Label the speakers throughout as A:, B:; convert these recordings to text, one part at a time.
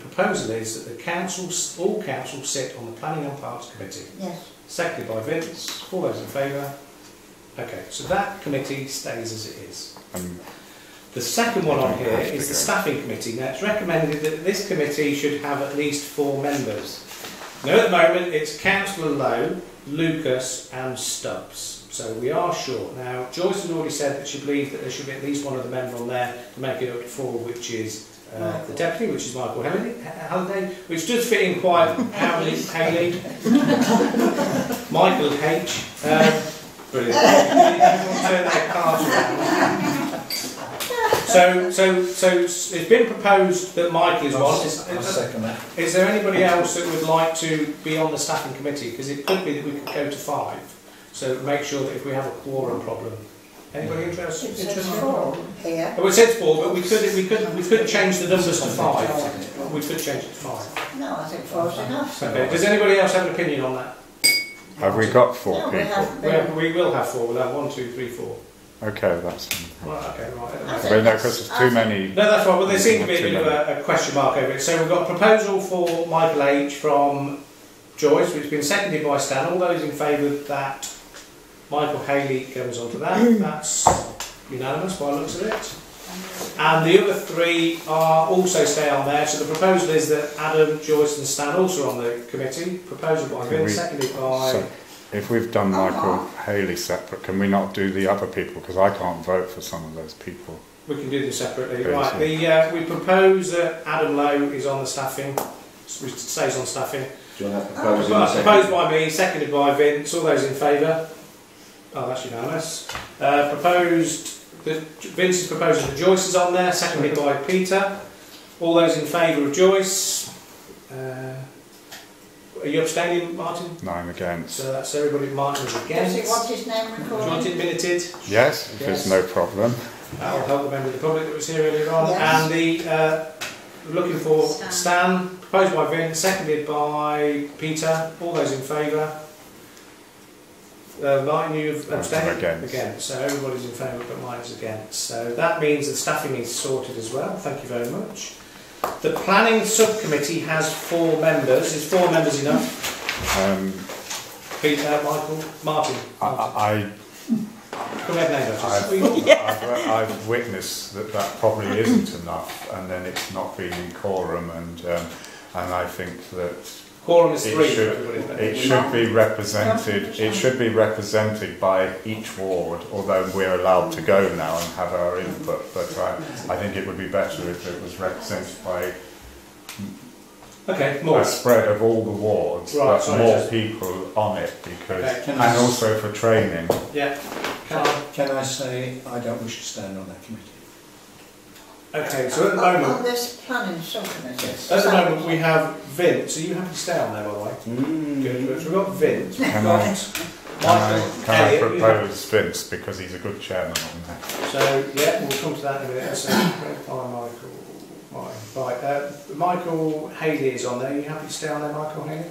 A: proposal is that the council, all council sit on the Planning and Parks Committee.
B: Yes.
A: Seconded by Vince, all those in favour? Okay, so that committee stays as it is.
C: Um,
A: The second one on here
C: That's
A: is the
C: bigger.
A: staffing committee. Now, it's recommended that this committee should have at least four members. Now, at the moment, it's councillor Lowe, Lucas and Stubbs. So we are short. Now, Joyce has already said that she believed that there should be at least one other member on there to make it up to four, which is uh, the
B: Michael.
A: deputy, which is Michael Halliday, Halliday which does fit in quite Howley, Haley, Michael H. Um, brilliant. Everyone turn their cards around. So, so, so it's been proposed that Michael is one. Is-
D: I'll
A: is-
D: second that.
A: Is there anybody else that would like to be on the staffing committee? Because it could be that we could go to five. So make sure that if we have a quorum problem, anybody interested?
B: It's
A: interested?
B: a four here.
A: Oh, it says four, but we could, we could, we could change the numbers to five. We could change it to five.
B: No, I think four's enough.
A: Okay, does anybody else have an opinion on that?
C: have we got four
B: No, we
C: people?
B: haven't
A: We, have,
B: been.
A: we will have four, we'll have one, two, three, four.
C: Okay, that's fine.
A: Right, okay, right. at the
B: I
A: moment.
B: think
C: But no,
B: that's-
C: because
B: I
C: there's too
B: think-
C: many.
A: No, that's right. Well, there seemed to be a
C: Too
A: bit of
C: many.
A: a, a question mark over it. So we've got a proposal for Michael H from Joyce, which has been seconded by Stan. All those in favour that Michael Haley goes on to that, that's unanimous by the looks of it. And the other three are also stay on there. So the proposal is that Adam, Joyce, and Stan also on the committee. Proposal by
C: Can
A: Vince,
C: we-
A: seconded by.
C: So, if we've done Michael Haley separate, can we not do the other people? Because I can't vote for some of those people.
A: We can do them separately.
C: Okay,
A: Right.
C: so-
A: The uh, we propose that Adam Lowe is on the staffing, stays on staffing.
D: Do you
A: Ah,
D: want that
B: proposed
D: proposed
A: Well, Proposed by me, seconded by Vince, all those in favour? Oh, that's unanimous. Uh, proposed, that Vince is proposing that Joyce is on there, seconded by Peter. All those in favour of Joyce? Uh, are you abstaining, Martin?
C: Nine against.
A: So that's everybody, Martin's
B: Does he want
A: against.
B: his name
A: Do you want
B: recorded?
A: it minuted?
C: Yes,
A: Yes.
C: if there's no problem.
A: That'll help the member of the public that was here earlier on.
B: Yes.
A: And the, uh, looking for
E: Stan.
A: Stan, proposed by Vin, seconded by Peter. All those in favour? Uh, Martin, you've
C: I'm
A: abstained?
C: against.
A: So everybody's in favour but mine's against. So that means the staffing is sorted as well. Thank you very much. The planning subcommittee has four members. Is four members enough?
C: Um,
A: Peter, Michael, Martin.
C: I, I,
A: Come ahead, neighbour.
C: I've, I've, I've witnessed that that probably isn't enough, and then it's not been in quorum, and um, and I think that
A: Quorum is
C: It
A: three.
C: should-
A: everybody's there.
C: It should be represented, it should be represented by each ward, although we're allowed to go now and have our input, but I, I think it would be better if it was represented by
A: Okay, more.
C: a spread of all the wards,
A: Right,
C: but
A: sorry,
C: more
A: just-
C: people on it
A: Okay,
C: because,
D: can
C: and
D: I s-
C: also for training.
A: Yeah. Can I-
D: Can, can I say I don't wish to stand on that committee?
A: Okay, so at the
B: On-
A: moment,
B: On Oh, this planning subcommittee.
D: Yes.
A: at the moment we have Vince. Are you happy to stay on there, by the way?
F: Hmm.
A: Good. So we've got Vince. We've
C: Can
A: got
C: I- Can
A: Michael
C: I, can I
A: Elliott, you have-
C: propose Vince because he's a good chairman on that?
A: So yeah, we'll come to that in a minute. So by Michael, Martin. right? Uh, Michael Haley is on there. Are you happy to stay on there, Michael Haley?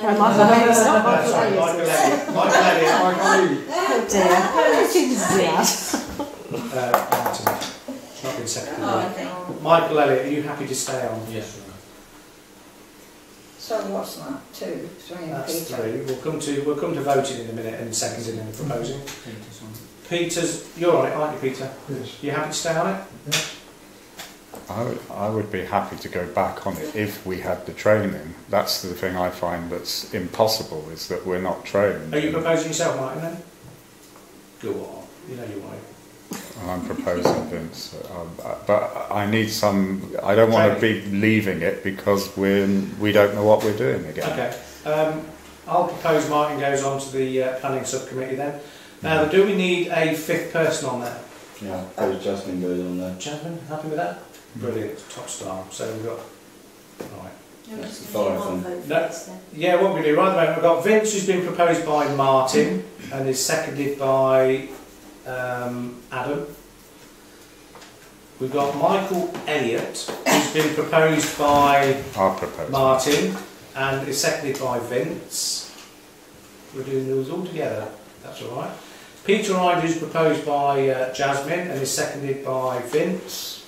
G: Well, Michael Hayes, not
A: No,
G: Michael
A: sorry,
G: Hayes.
A: Michael Elliott. Michael Elliott.
G: Oh dear, how did you do that?
A: Uh, Martin. It's not been seconded.
E: Oh, okay.
A: Michael Elliott, are you happy to stay on?
D: Yes.
B: So what's that, two, three and
A: That's
B: Peter?
A: three. We'll come to we'll come to voting in a minute and seconding and proposing. Peter's, you're on it, aren't you, Peter?
D: Yes.
A: You happy to stay on it?
C: I would, I would be happy to go back on it if we had the training. That's the thing I find that's impossible is that we're not trained.
A: Are you proposing yourself, Martin, then? Go on. You know you want it.
C: And I'm proposing Vince, um, but I need some. I don't want to be leaving it because we're we don't know what we're doing again.
A: Okay. Um, I'll propose Martin goes on to the uh, planning subcommittee then. Now, do we need a fifth person on there?
F: Yeah, Coach Jasmine goes on there.
A: Jasmine, happy with that? Brilliant, top star. So we've got. Right.
F: That's the fire thing.
A: That's- Yeah, what we do right at the moment, we've got Vince, who's been proposed by Martin and is seconded by um, Adam. We've got Michael Elliott, who's been proposed by
C: I'll propose.
A: Martin and is seconded by Vince. We're doing those all together, that's all right. Peter Ide is proposed by uh, Jasmine and is seconded by Vince.